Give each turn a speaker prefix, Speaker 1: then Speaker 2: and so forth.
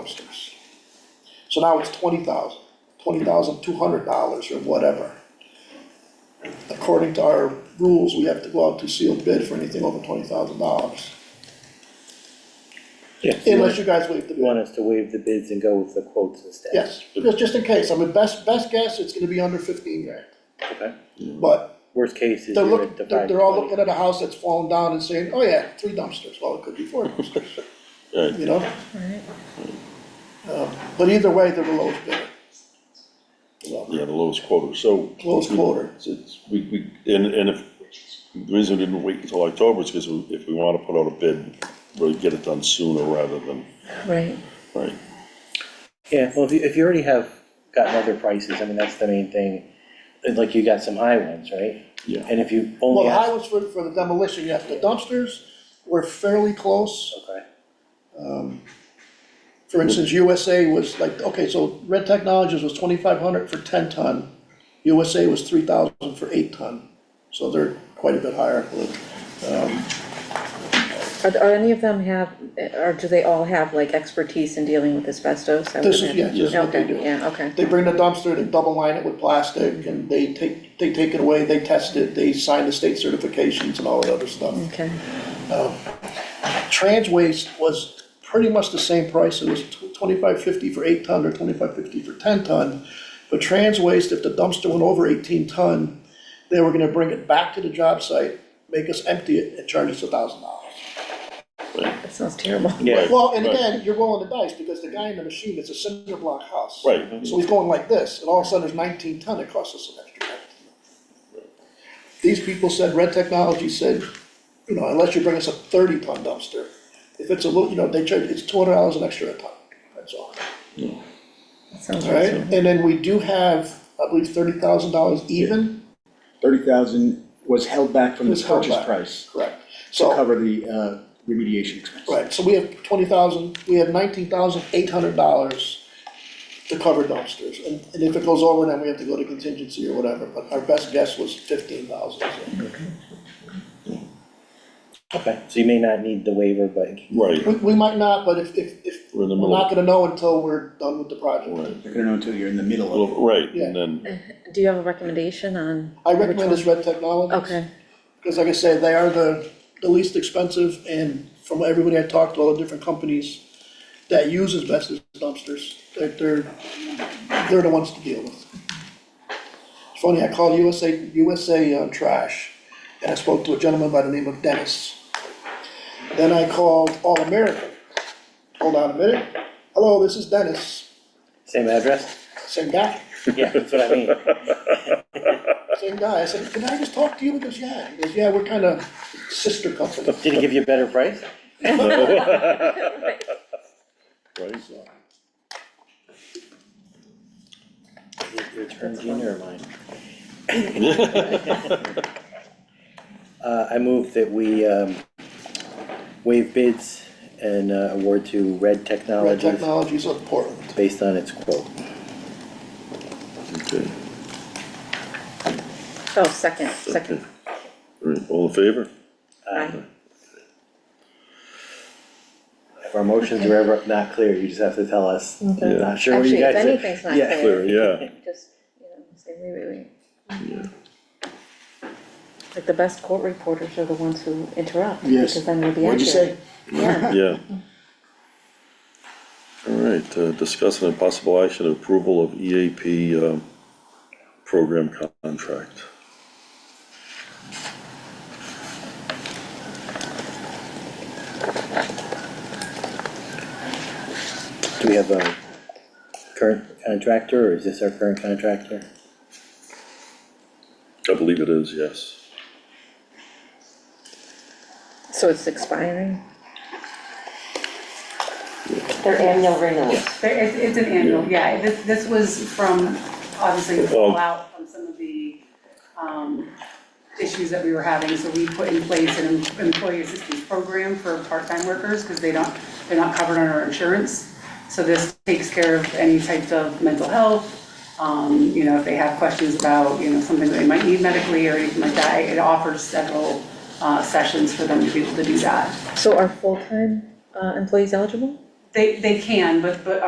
Speaker 1: dumpsters. So now it's twenty thousand, twenty thousand two hundred dollars or whatever. According to our rules, we have to go out to sealed bid for anything over twenty thousand dollars,
Speaker 2: Yeah.
Speaker 1: unless you guys waive the
Speaker 2: You
Speaker 1: bid.
Speaker 2: want us to waive the bids and go with the quotes instead?
Speaker 1: Yes, just, just in case, I mean, best, best guess, it's gonna be under fifteen grand,
Speaker 2: Okay.
Speaker 1: but
Speaker 2: Worst case is
Speaker 1: they're
Speaker 2: you're
Speaker 1: looking,
Speaker 2: at
Speaker 1: they're,
Speaker 2: defined
Speaker 1: they're all
Speaker 2: twenty.
Speaker 1: looking at a house that's fallen down and saying, oh yeah, three dumpsters, well, it could be four dumpsters.
Speaker 3: Right.
Speaker 1: You know? Uh, But either way, they're the lowest bidder. So,
Speaker 3: Yeah, the lowest quota, so.
Speaker 1: Lowest quota.
Speaker 3: It's- It's, we, we, and, and if, the reason we didn't wait until October is because if we wanna put out a bid, we'll get it done sooner rather than,
Speaker 4: Right.
Speaker 3: right?
Speaker 2: Yeah, well, if you, if you already have gotten other prices, I mean, that's the main thing. And Like you got some high ones, right?
Speaker 3: Yeah.
Speaker 2: And if you
Speaker 1: Well,
Speaker 2: only
Speaker 1: the
Speaker 2: ask,
Speaker 1: highways for, for the demolition, you have the dumpsters, we're fairly close.
Speaker 2: okay,
Speaker 1: For instance, USA was like, okay, so Red Technologies was twenty-five hundred for ten ton. USA was three thousand for eight ton, so they're quite a bit higher.
Speaker 4: Are, are any of them have, or do they all have like expertise in dealing with asbestos? I would
Speaker 1: This is-
Speaker 4: imagine.
Speaker 1: yeah, this is what they do.
Speaker 4: Okay, yeah, okay,
Speaker 1: They bring the dumpster, they double line it with plastic, and they take, they take it away, they test it, they sign the state certifications and all that other stuff.
Speaker 4: okay,
Speaker 1: Trans waste was pretty much the same price, it was twenty-five fifty for eight ton or twenty-five fifty for ten ton. But trans waste, if the dumpster went over eighteen ton, they were gonna bring it back to the job site, make us empty it, and charge us a thousand dollars.
Speaker 4: that sounds terrible.
Speaker 2: yeah,
Speaker 1: Well, and
Speaker 3: Right.
Speaker 1: again, you're rolling the dice, because the guy in the machine, it's a cinder block house.
Speaker 3: Right.
Speaker 1: So he's going like this, and all of a sudden, there's nineteen ton, it costs us an extra ton. These people said, Red Technology said, you know, unless you bring us a thirty ton dumpster, if it's a little, you know, they charge, it's two hundred dollars an extra a ton, that's all.
Speaker 4: That sounds
Speaker 1: All right,
Speaker 4: awful.
Speaker 1: and then we do have, I believe, thirty thousand dollars even,
Speaker 5: Thirty thousand was held back from the
Speaker 1: Was held
Speaker 5: purchase
Speaker 1: back.
Speaker 5: price
Speaker 1: correct?
Speaker 5: to
Speaker 1: So,
Speaker 5: cover the uh, remediation expense.
Speaker 1: right, so we have twenty thousand, we have nineteen thousand eight hundred dollars to cover dumpsters, and, and if it goes over, then we have to go to contingency or whatever, but our best guess was fifteen thousand.
Speaker 2: okay. So you may not need the waiver, but
Speaker 3: Right,
Speaker 1: We, we might not, but if, if, if,
Speaker 3: We're in the
Speaker 1: we're
Speaker 3: middle.
Speaker 1: not gonna know until we're done with the project.
Speaker 3: right,
Speaker 5: You're gonna know until you're in the middle of it.
Speaker 3: well, right,
Speaker 1: Yeah.
Speaker 3: and then,
Speaker 4: Do you have a recommendation on?
Speaker 1: I
Speaker 4: which
Speaker 1: recommend
Speaker 4: one?
Speaker 1: this Red Technologies.
Speaker 4: Okay,
Speaker 1: Because like I said, they are the, the least expensive, and from everybody I talked to, all the different companies that use asbestos dumpsters, they're, they're, they're the ones to deal with. It's funny, I called USA, USA uh, Trash, and I spoke to a gentleman by the name of Dennis. Then I called All American. Hold on a minute. Hello, this is Dennis.
Speaker 2: same address?
Speaker 1: Same guy.
Speaker 2: Yeah, that's what I mean.
Speaker 1: Same guy. I said, can I just talk to you? He goes, yeah. He goes, yeah, we're kind of sister company.
Speaker 2: Did he give you a better price?
Speaker 3: right,
Speaker 2: Your turn, Gina, or mine? Uh, I move that we, um, waive bids and uh, award to Red
Speaker 1: Red
Speaker 2: Technologies
Speaker 1: Technologies of Portland.
Speaker 2: based on its quote.
Speaker 3: okay,
Speaker 4: oh, second, second,
Speaker 3: right, all in favor? Uh,
Speaker 4: aye,
Speaker 2: If our motions are ever not clear, you just have to tell us.
Speaker 3: Yeah.
Speaker 2: Not sure what you
Speaker 4: Actually, if
Speaker 2: guys. are-
Speaker 4: anything's not
Speaker 2: Yeah.
Speaker 4: clear.
Speaker 3: Clear, yeah,
Speaker 4: just, you know, say, wait, wait, wait.
Speaker 3: yeah,
Speaker 4: Like the best court reporters are the ones who interrupt,
Speaker 5: Yes.
Speaker 4: because then we'll be accurate.
Speaker 5: What'd you say?
Speaker 4: Yeah,
Speaker 3: yeah. All right, uh, discussing a possible action of approval of EAP, um, program contract.
Speaker 2: Do we have a current contractor, or is this our current contractor?
Speaker 3: I believe it is, yes.
Speaker 4: so it's expiring?
Speaker 6: Their annual renewals.
Speaker 7: There, it's, it's an annual, yeah, this, this was from, obviously, the fallout from some of the, um, issues that we were having, so we put in place an employee assistance program for part-time workers, because they don't, they're not covered under insurance. So this takes care of any types of mental health, um, you know, if they have questions about, you know, something that they might need medically or anything like that, it offers several, uh, sessions for them to be able to do that.
Speaker 4: So are full-time, uh, employees eligible?
Speaker 7: They, they can, but, but